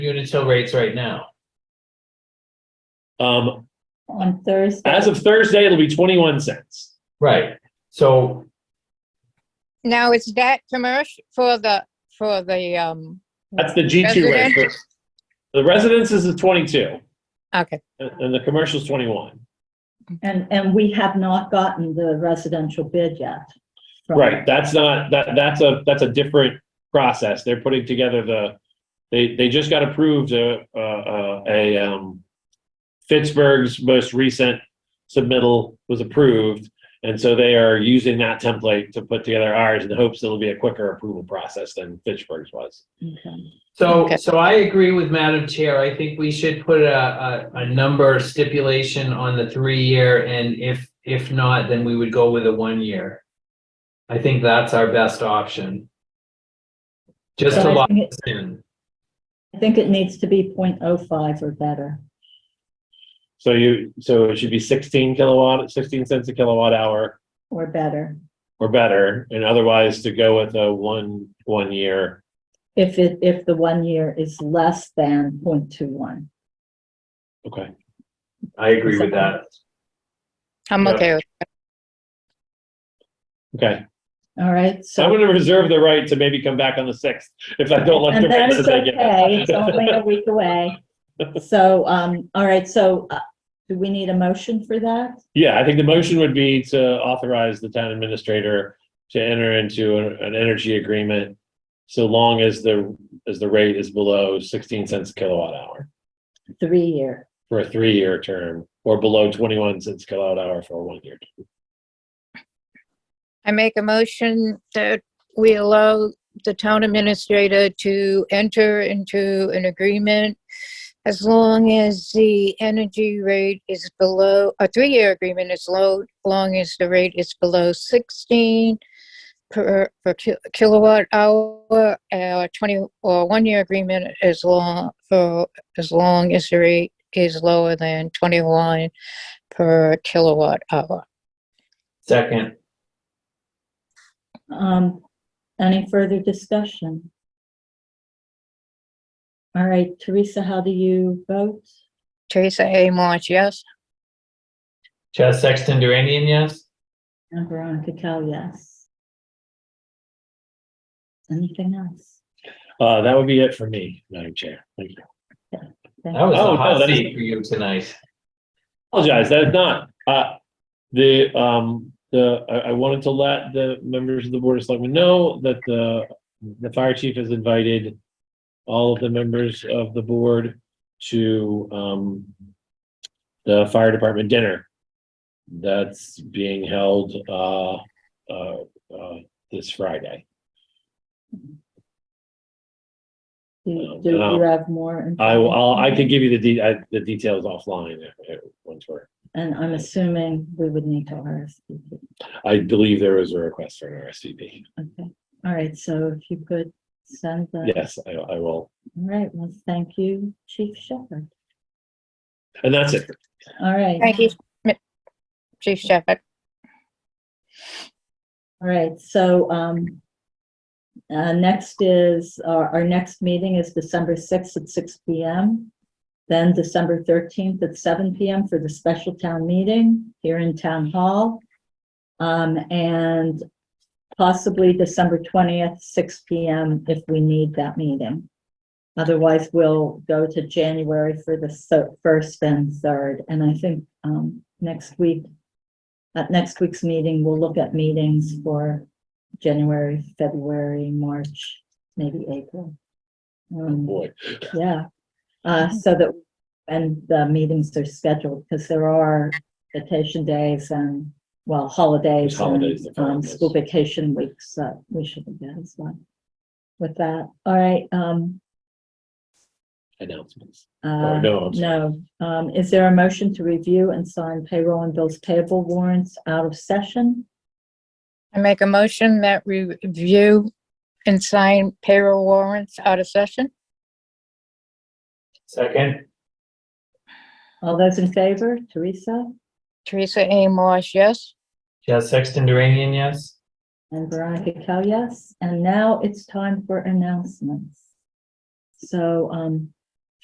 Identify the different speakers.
Speaker 1: Unitil rates right now.
Speaker 2: Um,
Speaker 3: on Thursday.
Speaker 2: as of Thursday, it'll be twenty-one cents.
Speaker 1: Right, so
Speaker 4: Now, is that commercial for the, for the, um,
Speaker 2: That's the G two rate. for- The residences is twenty-two
Speaker 4: okay,
Speaker 2: and, and the commercial's twenty-one.
Speaker 3: And, and we have not gotten the residential bid yet. from-
Speaker 2: Right, that's not, that, that's a, that's a different process. They're putting together the, they, they just got approved a, a- a, a, um, Pittsburgh's most recent submittal was approved, and so they are using that template to put together ours in the hopes it'll be a quicker approval process than Pittsburgh's was.
Speaker 3: Okay.
Speaker 1: So,
Speaker 4: Okay.
Speaker 1: so I agree with Madam Chair. I think we should put a, a, a number stipulation on the three-year, and if, if not, then we would go with a one-year. I think that's our best option. Just to
Speaker 3: So I
Speaker 1: lock
Speaker 3: think it-
Speaker 1: us in.
Speaker 3: I think it needs to be 0.05 or better.
Speaker 2: So you, so it should be sixteen kilowatt, sixteen cents a kilowatt hour
Speaker 3: Or better,
Speaker 2: or better, and otherwise to go with a one, one year.
Speaker 3: if it, if the one year is less than 0.21.
Speaker 2: Okay.
Speaker 1: I agree with that.
Speaker 4: I'm
Speaker 1: Yeah.
Speaker 4: okay with,
Speaker 2: Okay,
Speaker 3: All right,
Speaker 2: so I'm
Speaker 3: so,
Speaker 2: gonna reserve the right to maybe come back on the sixth if I don't like the
Speaker 3: and that
Speaker 2: rates
Speaker 3: is
Speaker 2: that I get.
Speaker 3: okay, it's only a week away. So, um, all right, so, uh, do we need a motion for that?
Speaker 2: Yeah, I think the motion would be to authorize the town administrator to enter into an, an energy agreement so long as the, as the rate is below sixteen cents a kilowatt hour
Speaker 3: Three year,
Speaker 2: for a three-year term or below twenty-one cents kilowatt hour for a one-year. term.
Speaker 4: I make a motion that we allow the town administrator to enter into an agreement as long as the energy rate is below, a three-year agreement is low, long as the rate is below 16 per, per ki- kilowatt hour, uh, 20, or one-year agreement as long, for, as long as the rate is lower than 21 per kilowatt hour.
Speaker 1: Second,
Speaker 3: um, any further discussion? All right, Teresa, how do you vote?
Speaker 4: Teresa A. March, yes?
Speaker 1: Chaz Sexton Duranian, yes?
Speaker 3: And Veronica Cal, yes. Anything else?
Speaker 2: Uh, that would be it for me, Madam Chair. Thank you.
Speaker 3: Thank
Speaker 1: That was
Speaker 2: Oh,
Speaker 1: a
Speaker 2: no,
Speaker 1: hot
Speaker 2: that is-
Speaker 1: seat for you tonight.
Speaker 2: Apologize, that is not, uh, the, um, the, I, I wanted to let the members of the Board of Selectmen know that the, the fire chief has invited all of the members of the board to, um, the fire department dinner that's being held, uh, uh, uh, this Friday.
Speaker 3: you. Do do you have more?
Speaker 2: I will, I'll, I
Speaker 3: information?
Speaker 2: can give you the de- I- the details offline if, if, once we're,
Speaker 3: And I'm assuming we would need to RSVP.
Speaker 2: I believe there was a request for an RSVP.
Speaker 3: Okay, all right, so if you could send that.
Speaker 2: Yes, I, I will.
Speaker 3: All right, well, thank you, Chief Shepherd.
Speaker 2: And that's it.
Speaker 3: All right.
Speaker 4: Thank you, Mi- Chief Shepherd.
Speaker 3: All right, so, um, uh, next is, our, our next meeting is December sixth at six P M. Then December thirteenth at seven P M for the special town meeting here in Town Hall. Um, and possibly December twentieth, six P M if we need that meeting. Otherwise, we'll go to January for the so- first and third, and I think, um, next week at next week's meeting, we'll look at meetings for January, February, March, maybe April. Um,
Speaker 2: Boy.
Speaker 3: yeah, uh, so that, and the meetings are scheduled, because there are vacation days and, well, holidays.
Speaker 2: There's holidays
Speaker 3: and,
Speaker 2: that fall on
Speaker 3: Um,
Speaker 2: those.
Speaker 3: school vacation weeks, that we should be good as well. With that, all right, um,
Speaker 2: announcements. Oh,
Speaker 3: uh,
Speaker 2: no, I'm sorry.
Speaker 3: no, um, is there a motion to review and sign payroll and bills payable warrants out of session?
Speaker 4: I make a motion that we review and sign payroll warrants out of session.
Speaker 1: Second,
Speaker 3: All those in favor, Teresa
Speaker 4: Teresa A. Marsh, yes?
Speaker 1: Chaz Sexton Duranian, yes?
Speaker 3: and Veronica Cal, yes. And now it's time for announcements. So, um,